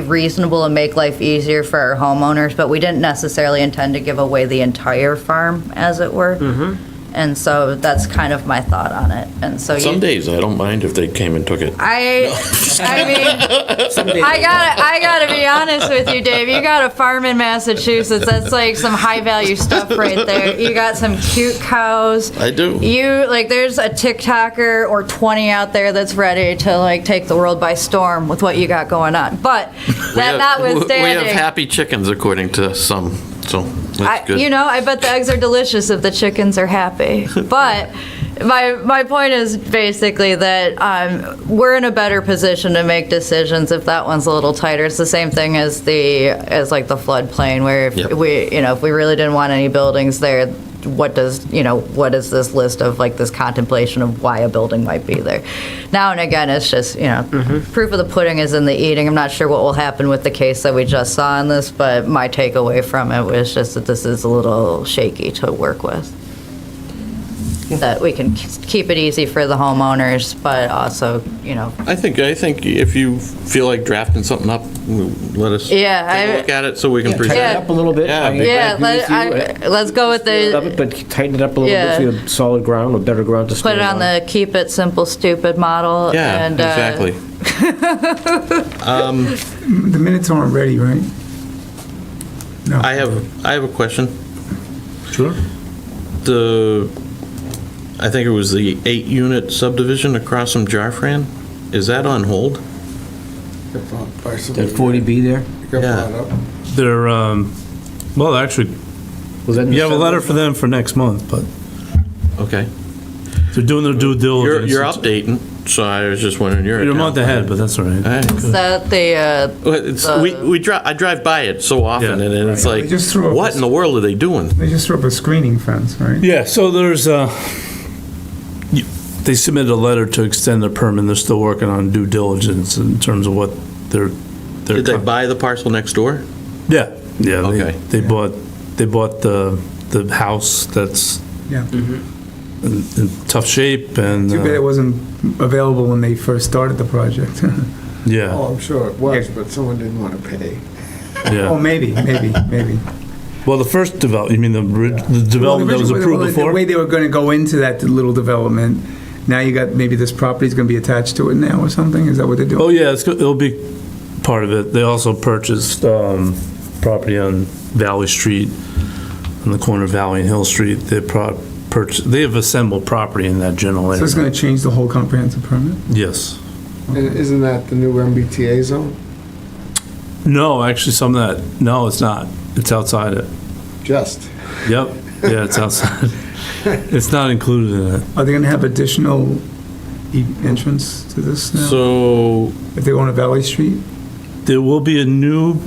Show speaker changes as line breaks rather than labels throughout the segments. be reasonable and make life easier for our homeowners, but we didn't necessarily intend to give away the entire farm, as it were. And so that's kind of my thought on it. And so
Some
you,
days I don't mind if they came and took it.
I, I mean, I gotta, I gotta be honest with you, Dave. You got a farm in Massachusetts. That's like some high value stuff right there. You got some cute cows.
I do.
You like, there's a TikToker or 20 out there that's ready to like take the world by storm with what you got going on. But
We
that
have-
notwithstanding,
We have happy chickens according to some, so
I,
that's good.
you know, I bet the eggs are delicious if the chickens are happy. But my my point is basically that um, we're in a better position to make decisions if that one's a little tighter. It's the same thing as the as like the floodplain, where if
Yep.
we you know if we really didn't want any buildings there. What does you know? What is this list of like this contemplation of why a building might be there? Now and again, it's just you know,
Mm-hmm.
proof of the pudding is in the eating. I'm not sure what will happen with the case that we just saw in this, but my takeaway from it was just that this is a little shaky to work with. That we can k- keep it easy for the homeowners, but also, you know,
I think, I think if you feel like drafting something up, let us take
Yeah, I-
a look at it so we can
Tighten
Yeah.
present
it up a little bit.
Yeah,
I- I
big-
yeah,
agree
let,
with you.
I, let's go with
Love
the,
it, But tighten it up a little bit
Yeah.
so you have solid ground or better ground to
put
stand
it on the keep it simple, stupid model.
it. Yeah,
and, uh,
exactly.
The minutes aren't ready, right? No.
I have, I have a question.
Sure.
The, I think it was the eight-unit subdivision across from Jarfran, is that on hold?
That 40B there?
They're, um, well, actually,
Was that in
you have a
December?
letter for them for next month, but
Okay.
they're doing their due
You're,
diligence.
you're updating, Oh, so I was just wondering, you're.
You're a month ahead, but that's all right.
All right.
Is that the, uh,
Well, It's, we, we drive, I drive by it so often,
Yeah.
and then it's like,
They just threw up
what
a-
in the world are they doing?
They just threw up a screening fence, right?
Yeah, so there's, uh, you- they submitted a letter to extend their permit, they're still working on due diligence in terms of what they're.
Did they buy the parcel next door?
Yeah, yeah. they-
Okay.
They bought, they bought the, the house that's
Yeah.
Mm-hmm. in in tough shape and,
Too bad it
uh,
wasn't available when they first started the project.
yeah,
Oh, I'm sure it was,
Yeah.
but someone didn't want to pay.
Oh,
yeah.
maybe, maybe, maybe.
Well, the first develop, you mean the, ri- the development that was
Well, the
approved
original-
before?
The way they were gonna go into that little development, now you got, maybe this property's gonna be attached to it now or something? Is that what they're
Oh,
doing?
yeah, it's, go- it'll be part of it. They also purchased um, property on Valley Street, on the corner of Valley and Hill Street. They pro- purchased, they have assembled property in that general
So it's
area.
gonna change the whole comprehensive permit?
Yes.
And Isn't that the new MBTA zone?
No, actually, some of that, no, it's not. It's outside it.
Just.
Yep, yeah, it's outside. It's not included in it.
Are they gonna have additional e- entrance to this now?
So,
If they go on a Valley Street?
There will be a new,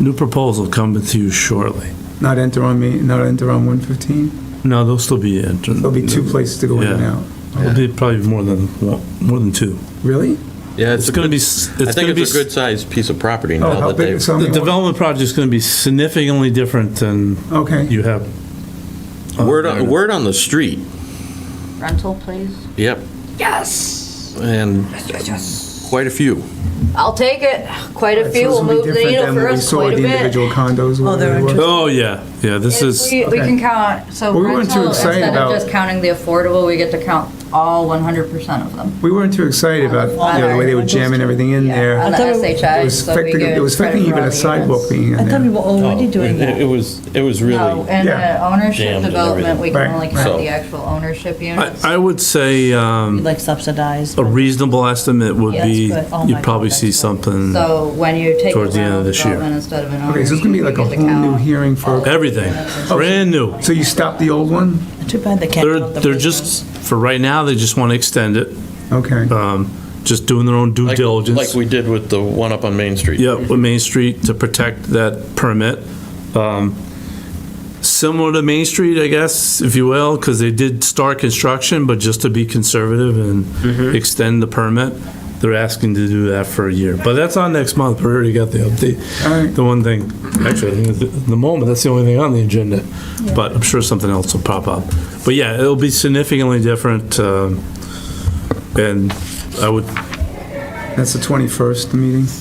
new proposal coming to you shortly.
Not enter on me, not enter on 115?
No, there'll still be. There'll
There'll be two places to go in and
Yeah.
out.
There'll be probably more than, one- more than two.
Really?
yeah,
It's going to be, s-
I
it's going to
think
be.
it's a
s-
good-sized piece of property
Oh,
now
how
that
big,
they've,
so I
The
mean,
development project's gonna be significantly different than
okay.
you have. uh,
word,
there.
on- word on the street,
rental, please?
yep,
Yes!
and quite a few.
I'll take it. Quite a few will
So this be
move the
different
needle
than
for
what we
us
saw
quite
with
a
the
bit.
individual condos. or whatever it was.
Oh, yeah, yeah, this is,
We, we
Okay.
can count, so
We weren't too
rental,
excited
instead of
about-
just counting the affordable, we get to count all 100% of them.
We weren't too excited about, you know, the way they were jamming everything in
On
there.
the
thought it-
It
SHI.
was
so we
affecting,
give
it was affecting
credit
even
for all
a
the
sidewalk
units.
being
I
in
thought we
there.
were already
Oh.
doing
Oh, It- It
that.
was, it was
No,
really,
and
Yeah.
uh, ownership
Jammed and
development, we can
Right.
only count
So-
the actual ownership
I,
units.
I would say, um,
Like subsidized.
a reasonable estimate would
Yeah,
be,
that's good. Oh
you'd
my
probably
God,
see
that's good.
something,
So when you take a
Towards the end
rental
of this year.
development instead of an
Okay, so
ownership,
it's gonna be
you
like a
get to
whole new
count.
hearing for,
everything, brand new.
Oh.
so you stopped the old one?
Too bad they can't.
They're,
build the
they're
big
just, for right now, they just wanna extend it,
Okay.
um, just doing their own due
like like
diligence.
we did with the one up on Main Street.
Yeah, with Main Street to protect that permit. Um, Similar to Main Street, I guess, if you will, because they did start construction, but just to be conservative and extend the permit, they're asking to do that for a year. But that's on next month, we already got the update.
All right.
The one thing, actually, I think at the the moment, that's the only thing on the agenda, but I'm sure something else will pop up. But yeah, it'll be significantly different, um, and I would
That's the 21st, the meeting?